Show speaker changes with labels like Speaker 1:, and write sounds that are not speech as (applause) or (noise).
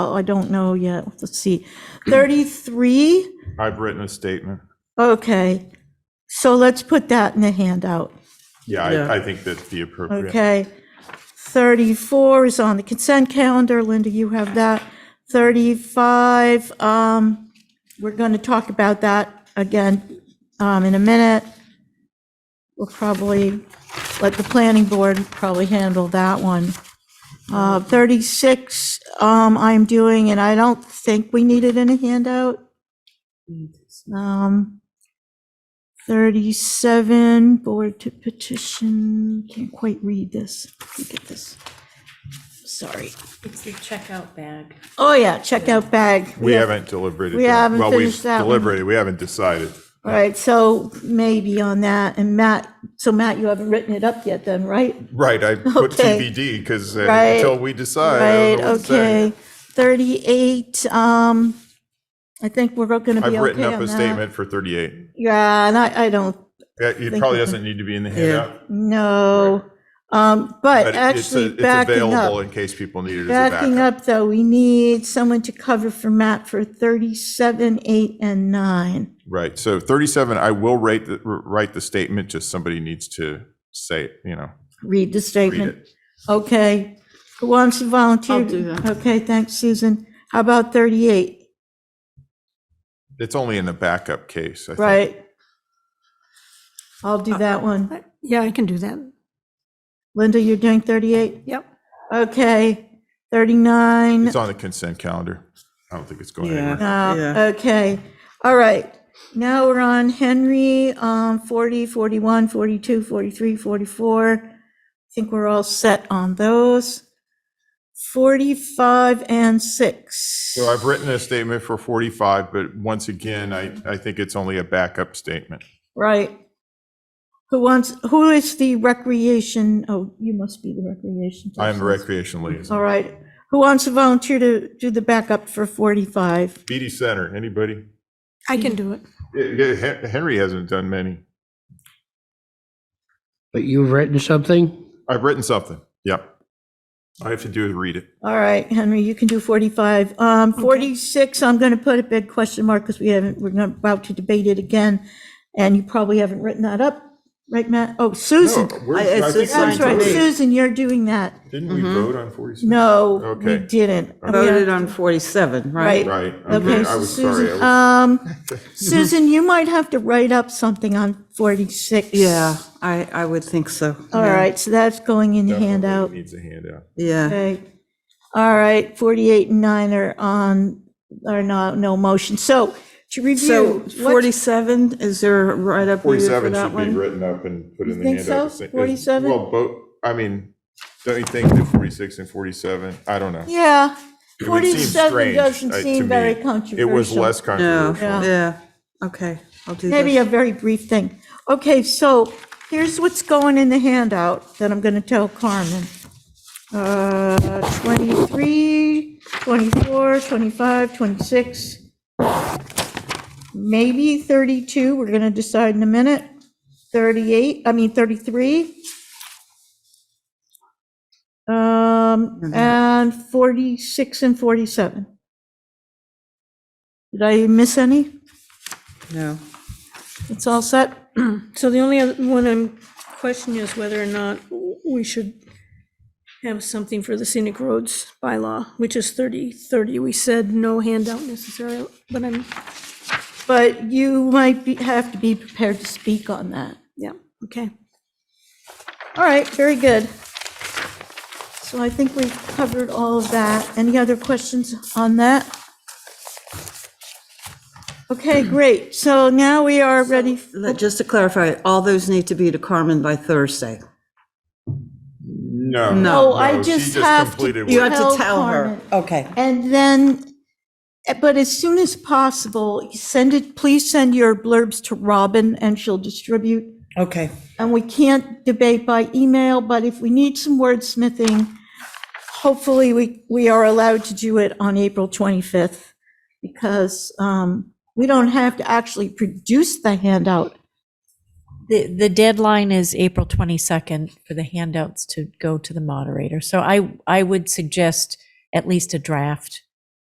Speaker 1: oh, I don't know yet, let's see, 33?
Speaker 2: I've written a statement.
Speaker 1: Okay, so let's put that in the handout,
Speaker 2: Yeah,
Speaker 3: Yeah.
Speaker 2: I, I think that's the appropriate.
Speaker 1: okay? 34 is on the consent calendar, Linda, you have that. 35, um, we're going to talk about that again um, in a minute. We'll probably, let the planning board probably handle that one. Uh, 36, um, I'm doing, and I don't think we need it in a handout. Um, 37, board to petition, can't quite read this. Let me get this. Sorry.
Speaker 4: It's the checkout bag.
Speaker 1: Oh, yeah, checkout bag.
Speaker 2: We haven't deliberated.
Speaker 1: we
Speaker 2: that.
Speaker 1: haven't
Speaker 2: Well, we've
Speaker 1: finished that one.
Speaker 2: Deliberated, we haven't decided.
Speaker 1: All right, so maybe on that, and Matt, so Matt, you haven't written it up yet then, right?
Speaker 2: Right, I put
Speaker 1: Okay.
Speaker 2: TBD because
Speaker 1: Right.
Speaker 2: uh, until we decide, I
Speaker 1: Right,
Speaker 2: don't know what to say.
Speaker 1: okay. 38, um, I think we're going to be okay on
Speaker 2: I've
Speaker 1: that.
Speaker 2: written up a statement for 38.
Speaker 1: Yeah, and I, I don't,
Speaker 2: Yeah, It
Speaker 1: Thank
Speaker 2: probably
Speaker 1: you.
Speaker 2: doesn't need to be in the handout,
Speaker 1: know. Um, but
Speaker 2: but it's,
Speaker 1: actually
Speaker 2: a- it's
Speaker 1: backing up.
Speaker 2: available in case people need it as a
Speaker 1: Backing
Speaker 2: backup.
Speaker 1: up, though, we need someone to cover for Matt for 37, 8, and 9.
Speaker 2: Right, so 37, I will write, the- write the statement, just somebody needs to say, it, you know,
Speaker 1: Read the
Speaker 2: read
Speaker 1: statement.
Speaker 2: it.
Speaker 1: Okay. Who wants to volunteer?
Speaker 3: I'll do that.
Speaker 1: Okay, thanks, Susan. How about 38,
Speaker 2: It's only in the backup case, I think.
Speaker 1: right? I'll
Speaker 3: Uh,
Speaker 1: do that one.
Speaker 3: Yeah, I can do that.
Speaker 1: Linda, you're doing 38?
Speaker 3: Yep.
Speaker 1: Okay. 39?
Speaker 2: It's on the consent calendar. I don't think it's going
Speaker 3: Yeah.
Speaker 2: anywhere.
Speaker 1: No,
Speaker 3: Yeah.
Speaker 1: Oh, okay, all right. Now we're on Henry, um, 40, 41, 42, 43, 44. I think we're all set on those. 45 and 6.
Speaker 2: So I've written a statement for 45, but once again, I, I think it's only a backup statement.
Speaker 1: Right. Who wants, who is the recreation, oh, you must be the recreation.
Speaker 2: I am the
Speaker 1: person.
Speaker 2: recreation liaison.
Speaker 1: All right. Who wants to volunteer to do the backup for 45?
Speaker 2: BD Center, anybody?
Speaker 3: I can do it.
Speaker 2: Yeah, yeah, Hen- Henry hasn't done many.
Speaker 5: But you've written something?
Speaker 2: I've written something. Yep. All I have to do is read it.
Speaker 1: All right, Henry, you can do 45. Um, 46, I'm going to put a big question mark because we haven't, we're not about to debate it again. And you probably haven't written that up, right, Matt? Oh, Susan.
Speaker 2: No, we're- I
Speaker 3: I- it's
Speaker 2: think
Speaker 3: just
Speaker 2: we
Speaker 1: That's
Speaker 3: fine to
Speaker 1: right,
Speaker 3: me.
Speaker 2: voted.
Speaker 1: Susan, you're doing that.
Speaker 2: Didn't we vote on 46?
Speaker 1: No, we
Speaker 2: Okay.
Speaker 1: didn't.
Speaker 3: Voted on 47, right?
Speaker 1: Right.
Speaker 2: Right.
Speaker 1: Okay,
Speaker 2: Okay, I
Speaker 1: so
Speaker 2: was sorry. I
Speaker 1: Susan,
Speaker 2: was-
Speaker 1: um,
Speaker 2: (laughs)
Speaker 1: Susan, you might have to write up something on 46.
Speaker 3: Yeah, I, I would think so.
Speaker 1: All right, so that's going in the
Speaker 2: Definitely
Speaker 1: handout.
Speaker 2: Needs a handout.
Speaker 3: Yeah,
Speaker 1: Okay. All right, 48 and 9 are on, are not, no motion. So to
Speaker 3: so
Speaker 1: review. what-
Speaker 3: 47, is there right up needed for
Speaker 2: 47 should
Speaker 3: that
Speaker 2: be
Speaker 3: one?
Speaker 2: written up and put
Speaker 1: You
Speaker 2: in the
Speaker 1: think
Speaker 2: handout.
Speaker 1: so?
Speaker 2: It's- it's-
Speaker 1: 47?
Speaker 2: Well, both, I mean, don't you think that 46 and 47, I don't know.
Speaker 1: Yeah,
Speaker 2: It would seem
Speaker 1: 47
Speaker 2: strange,
Speaker 1: doesn't
Speaker 2: uh, to
Speaker 1: seem very
Speaker 2: me.
Speaker 1: controversial.
Speaker 2: It was less
Speaker 3: No,
Speaker 2: controversial.
Speaker 3: yeah, okay, I'll do
Speaker 1: Maybe
Speaker 3: this.
Speaker 1: a very brief thing. Okay, so here's what's going in the handout that I'm going to tell Carmen. Uh, 23, 24, 25, 26, maybe 32, we're going to decide in a minute, 38, I mean 33. Um, and 46 and 47. Did I miss any?
Speaker 3: No,
Speaker 1: It's all set?
Speaker 6: (clears throat) So the only other one I'm questioning is whether or not we should have something for the scenic roads bylaw, which is 30, 30. We said no handout necessarily, but I'm,
Speaker 1: But you might be, have to be prepared to speak on that.
Speaker 6: yeah, okay.
Speaker 1: All right, very good. So I think we've covered all of that. Any other questions on that? Okay, great. So now we are ready.
Speaker 3: Let- just to clarify, all those need to be to Carmen by Thursday.
Speaker 2: No.
Speaker 1: No, oh,
Speaker 3: No,
Speaker 1: I
Speaker 2: she
Speaker 1: just have
Speaker 2: completed
Speaker 3: You
Speaker 2: what-
Speaker 3: have to tell her,
Speaker 1: Carmen.
Speaker 3: okay.
Speaker 1: Oh. And then, but as soon as possible, send it, please send your blurbs to Robin and she'll distribute
Speaker 3: Okay.
Speaker 1: and we can't debate by email, but if we need some wordsmithing, hopefully we, we are allowed to do it on April 25th, because um, we don't have to actually produce the handout.
Speaker 4: The, the deadline is April 22nd for the handouts to go to the moderator. So I, I would suggest at least a draft